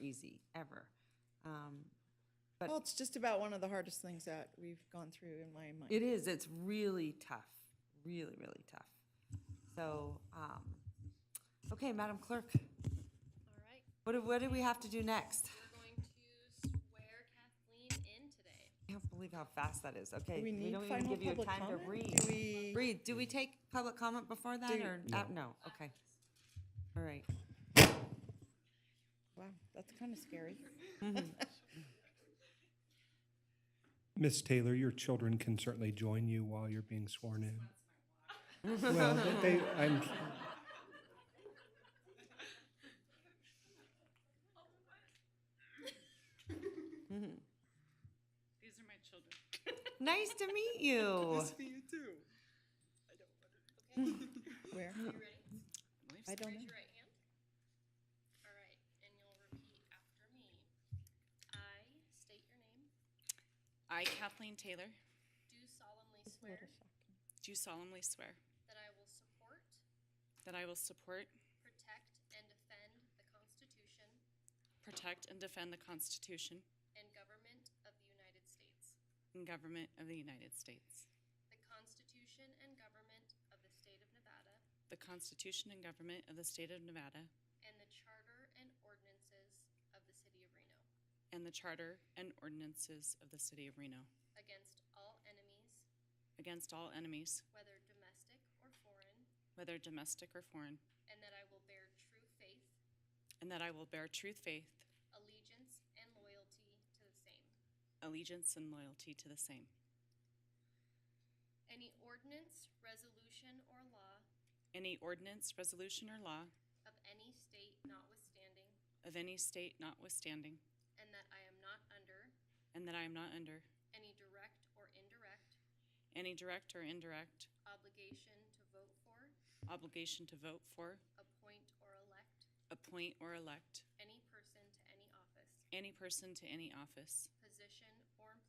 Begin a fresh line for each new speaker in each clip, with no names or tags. easy, ever. Um,
Well, it's just about one of the hardest things that we've gone through in my mind.
It is, it's really tough, really, really tough. So, um, okay, Madam Clerk,
All right,
what, do- what do we have to do next?
we're going to swear Kathleen in today.
I can't believe how fast that is, okay.
Do we need
don't even
final
give you
public
time to
comment?
breathe.
Do we-
Breathe, do we take public comment before that,
Do-
or, uh, no, okay. All right,
Wow, that's kind of scary.
Miss Taylor, your children can certainly join you while you're being sworn in. Well, they, I'm,
These are my children.
nice to meet you.
Where?
You ready?
I don't
Raise
know.
your right hand. All right, and you'll repeat after me. I state your name,
I, Kathleen Taylor,
do solemnly swear
do solemnly swear
that I will support,
that I will support,
protect, and defend the Constitution
protect, and defend the Constitution
and government of the United States,
and government of the United States,
the Constitution and government of the state of Nevada,
the Constitution and government of the state of Nevada,
and the charter and ordinances of the city of Reno,
and the charter and ordinances of the city of Reno,
against all enemies,
against all enemies,
whether domestic or foreign,
whether domestic or foreign,
and that I will bear true faith,
and that I will bear true faith,
allegiance, and loyalty to the same.
allegiance, and loyalty to the same.
Any ordinance, resolution, or law
Any ordinance, resolution, or law
of any state notwithstanding,
of any state notwithstanding,
and that I am not under
and that I am not under
any direct or indirect
any direct or indirect
obligation to vote for,
obligation to vote for,
appoint, or elect
appoint, or elect
any person to any office,
any person to any office,
position, or employment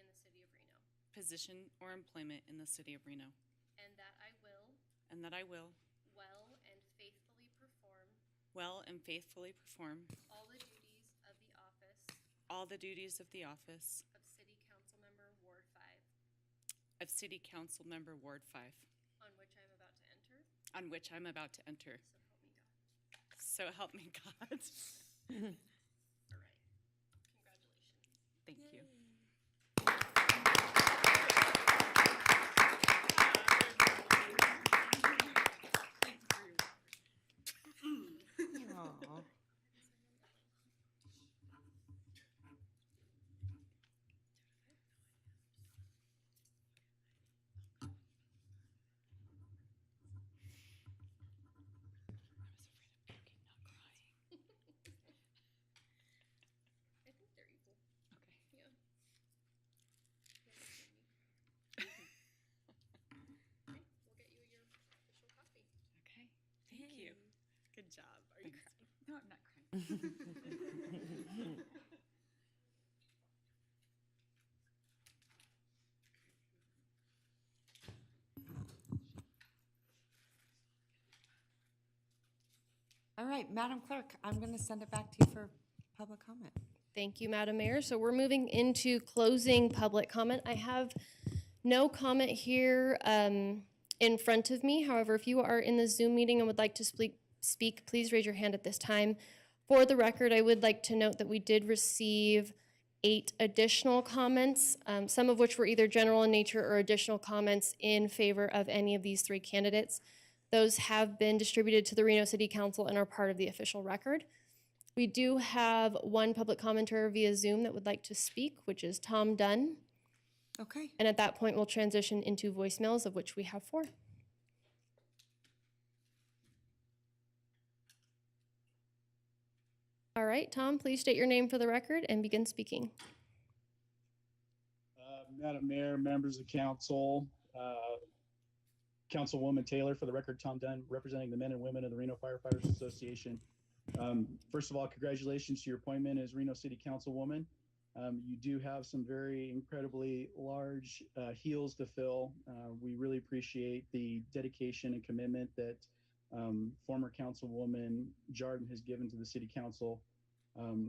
in the city of Reno,
position, or employment in the city of Reno,
and that I will
and that I will,
well and faithfully perform
well and faithfully perform,
all the duties of the office
all the duties of the office
of City Council Member Ward Five,
of City Council Member Ward 5,
on which I am about to enter,
on which I'm about to enter.
so help me God.
So help me God.
All right. Congratulations.
Thank you.
Aw.
I think they're equal.
Okay.
Yeah. Okay, we'll get you your official copy.
Okay, thank you.
Good job. Are you crying?
No, I'm not crying.
All right, Madam Clerk, I'm gonna send it back to you for public comment.
Thank you, Madam Mayor. So we're moving into closing public comment. I have no comment here um, in front of me. However, if you are in the Zoom meeting and would like to speak, speak, please raise your hand at this time. For the record, I would like to note that we did receive eight additional comments, um, some of which were either general in nature or additional comments in favor of any of these three candidates. Those have been distributed to the Reno City Council and are part of the official record. We do have one public commenter via Zoom that would like to speak, which is Tom Dunn.
Okay,
And at that point, we'll transition into voicemails, of which we have four. All right, Tom, please state your name for the record and begin speaking.
Uh, Madam Mayor, members of council, uh, Councilwoman Taylor, for the record, Tom Dunn, representing the men and women of the Reno Firefighters Association. Um, First of all, congratulations to your appointment as Reno City Councilwoman. Um, You do have some very incredibly large uh, heels to fill. Uh, We really appreciate the dedication and commitment that um, former Councilwoman Jarden has given to the city council. Um,